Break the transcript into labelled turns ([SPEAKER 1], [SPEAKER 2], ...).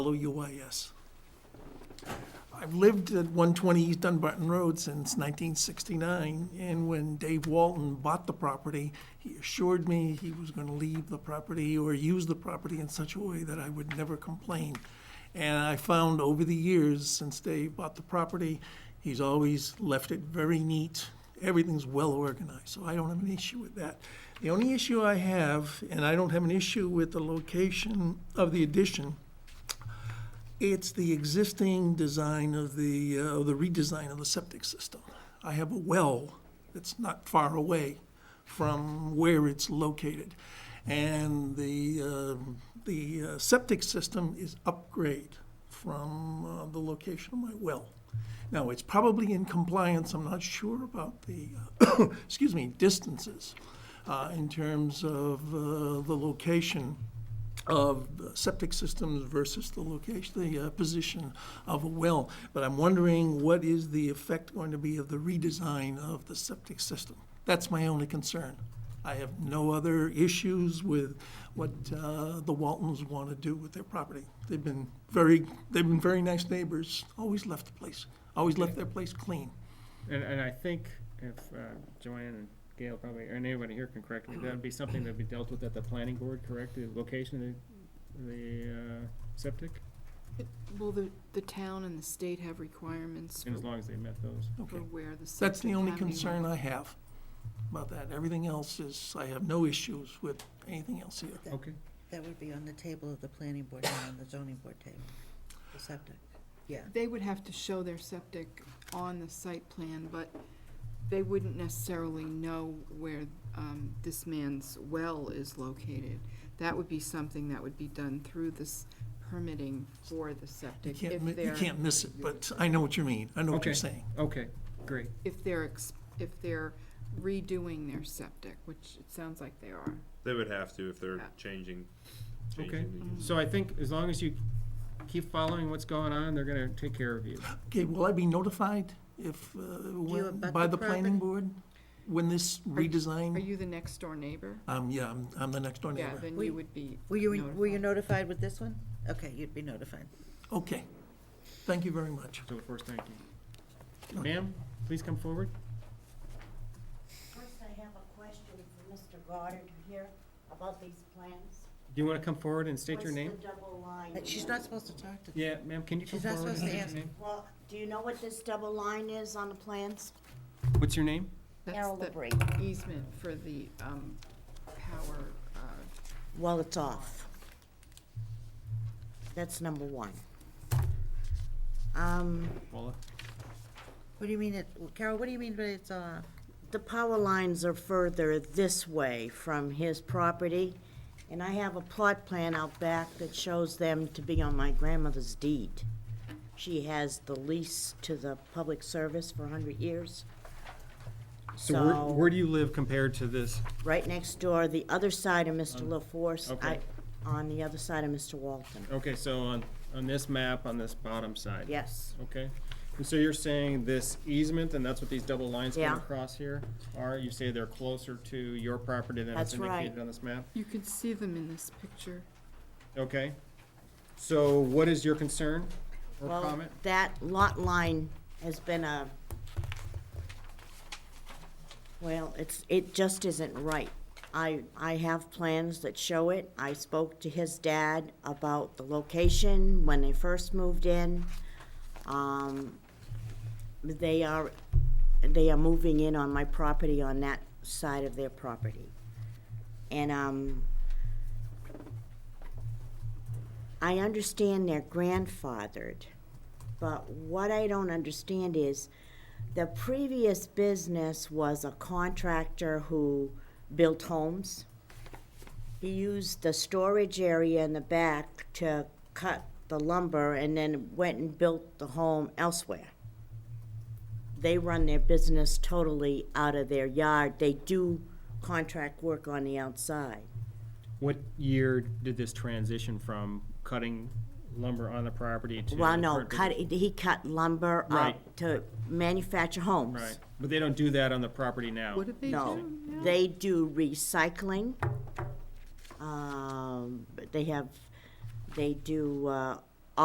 [SPEAKER 1] LUIS. I've lived at 120 East Dunbarton Road since 1969, and when Dave Walton bought the property, he assured me he was going to leave the property or use the property in such a way that I would never complain. And I found over the years, since Dave bought the property, he's always left it very neat. Everything's well organized, so I don't have an issue with that. The only issue I have, and I don't have an issue with the location of the addition, it's the existing design of the, uh, of the redesign of the septic system. I have a well that's not far away from where it's located. And the, um, the uh, septic system is upgrade from uh, the location of my well. Now, it's probably in compliance, I'm not sure about the, uh, excuse me, distances uh, in terms of uh, the location of septic systems versus the location, the uh, position of a well. But I'm wondering, what is the effect going to be of the redesign of the septic system? That's my only concern. I have no other issues with what uh, the Waltons want to do with their property. They've been very, they've been very nice neighbors, always left the place, always left their place clean.
[SPEAKER 2] And, and I think if uh, Joanne and Gail probably, or anybody here can correct me, that'd be something that'd be dealt with at the planning board, correct? The location of the, the uh, septic,
[SPEAKER 3] Will the, the town and the state have requirements
[SPEAKER 2] and as
[SPEAKER 3] for-
[SPEAKER 2] long as they met those.
[SPEAKER 3] for
[SPEAKER 1] Okay,
[SPEAKER 3] where the septic?
[SPEAKER 1] that's the only
[SPEAKER 3] cavity
[SPEAKER 1] concern
[SPEAKER 3] went?
[SPEAKER 1] I have about that. Everything else is, I have no issues with anything else here.
[SPEAKER 4] That-
[SPEAKER 2] Okay,
[SPEAKER 4] That would be on the table of the planning board, not on the zoning board table, the septic. Yeah,
[SPEAKER 3] They would have to show their septic on the site plan, but they wouldn't necessarily know where, um, this man's well is located. That would be something that would be done through this permitting for the
[SPEAKER 1] You
[SPEAKER 3] septic.
[SPEAKER 1] can't,
[SPEAKER 3] If
[SPEAKER 1] mi- you
[SPEAKER 3] they're
[SPEAKER 1] can't miss it, but I know what you mean. I know what you're
[SPEAKER 2] Okay.
[SPEAKER 1] saying.
[SPEAKER 2] okay, great.
[SPEAKER 3] If they're, ex- if they're redoing their septic, which it sounds like they are.
[SPEAKER 5] They would have to if they're
[SPEAKER 3] Yeah.
[SPEAKER 5] changing,
[SPEAKER 2] Okay. Mm.
[SPEAKER 5] changing the use.
[SPEAKER 2] So I think as long as you keep following what's going on, they're gonna take care of you.
[SPEAKER 1] Okay, will I be notified if, uh, when-
[SPEAKER 4] abut
[SPEAKER 1] by
[SPEAKER 4] the
[SPEAKER 1] the planning
[SPEAKER 4] property?
[SPEAKER 1] board? When this
[SPEAKER 3] Are you- Are
[SPEAKER 1] redesign?
[SPEAKER 3] you the next door neighbor?
[SPEAKER 1] Um, yeah, I'm, I'm the next door
[SPEAKER 3] Yeah,
[SPEAKER 1] neighbor.
[SPEAKER 3] then
[SPEAKER 4] We-
[SPEAKER 3] you would be
[SPEAKER 4] were you, were you
[SPEAKER 3] notified.
[SPEAKER 4] notified with this one? Okay, you'd be notified.
[SPEAKER 1] Okay. Thank you very much.
[SPEAKER 2] So first, thank you. Ma'am, please come forward.
[SPEAKER 6] First, I have a question for Mr. Goddard here about these plans.
[SPEAKER 2] Do you wanna come forward and state your name?
[SPEAKER 6] What's the double line?
[SPEAKER 4] But Uh, She's not supposed to talk to.
[SPEAKER 2] Yeah, ma'am, can you come
[SPEAKER 4] She's not
[SPEAKER 2] forward and
[SPEAKER 4] supposed
[SPEAKER 2] state
[SPEAKER 4] to
[SPEAKER 2] your
[SPEAKER 4] ask.
[SPEAKER 2] name?
[SPEAKER 6] Well, do you know what this double line is on the plans?
[SPEAKER 2] What's your name?
[SPEAKER 3] That's
[SPEAKER 6] Errol
[SPEAKER 3] the
[SPEAKER 6] LaBrie.
[SPEAKER 3] easement for the um, power, uh,
[SPEAKER 6] Well, it's off. That's number one.
[SPEAKER 4] Um,
[SPEAKER 2] Paula?
[SPEAKER 4] what do you mean it, Carol, what do you mean by it's, uh,
[SPEAKER 6] The power lines are further this way from his property, and I have a plot plan out back that shows them to be on my grandmother's deed. She has the lease to the public service for hundred years.
[SPEAKER 2] So where,
[SPEAKER 6] So-
[SPEAKER 2] where do you live compared to this?
[SPEAKER 6] right next door, the other side of Mr. LaForce,
[SPEAKER 2] okay.
[SPEAKER 6] I- on the other side of Mr. Walton.
[SPEAKER 2] Okay, so on, on this map, on this bottom side?
[SPEAKER 6] Yes,
[SPEAKER 2] Okay, and so you're saying this easement, and that's what these double lines going
[SPEAKER 6] Yeah.
[SPEAKER 2] across here are? You say they're closer to your property than it's
[SPEAKER 6] That's right.
[SPEAKER 2] indicated on this map?
[SPEAKER 3] you can see them in this picture.
[SPEAKER 2] Okay, so what is your concern or
[SPEAKER 6] well,
[SPEAKER 2] comment?
[SPEAKER 6] that lot line has been a, well, it's, it just isn't right. I, I have plans that show it. I spoke to his dad about the location when they first moved in. Um, they are, they are moving in on my property on that side of their property. And, um, I understand they're grandfathered, but what I don't understand is the previous business was a contractor who built homes. He used the storage area in the back to cut the lumber and then went and built the home elsewhere. They run their business totally out of their yard. They do contract work on the outside.
[SPEAKER 2] What year did this transition from cutting lumber on the property to?
[SPEAKER 6] Well, no,
[SPEAKER 2] current
[SPEAKER 6] cut,
[SPEAKER 2] business?
[SPEAKER 6] he cut lumber
[SPEAKER 2] Right.
[SPEAKER 6] up to manufacture homes.
[SPEAKER 2] Right, but they don't do that on the property now?
[SPEAKER 3] What did they do?
[SPEAKER 6] No,
[SPEAKER 3] Yeah.
[SPEAKER 6] they do recycling. Um, they have, they do, uh,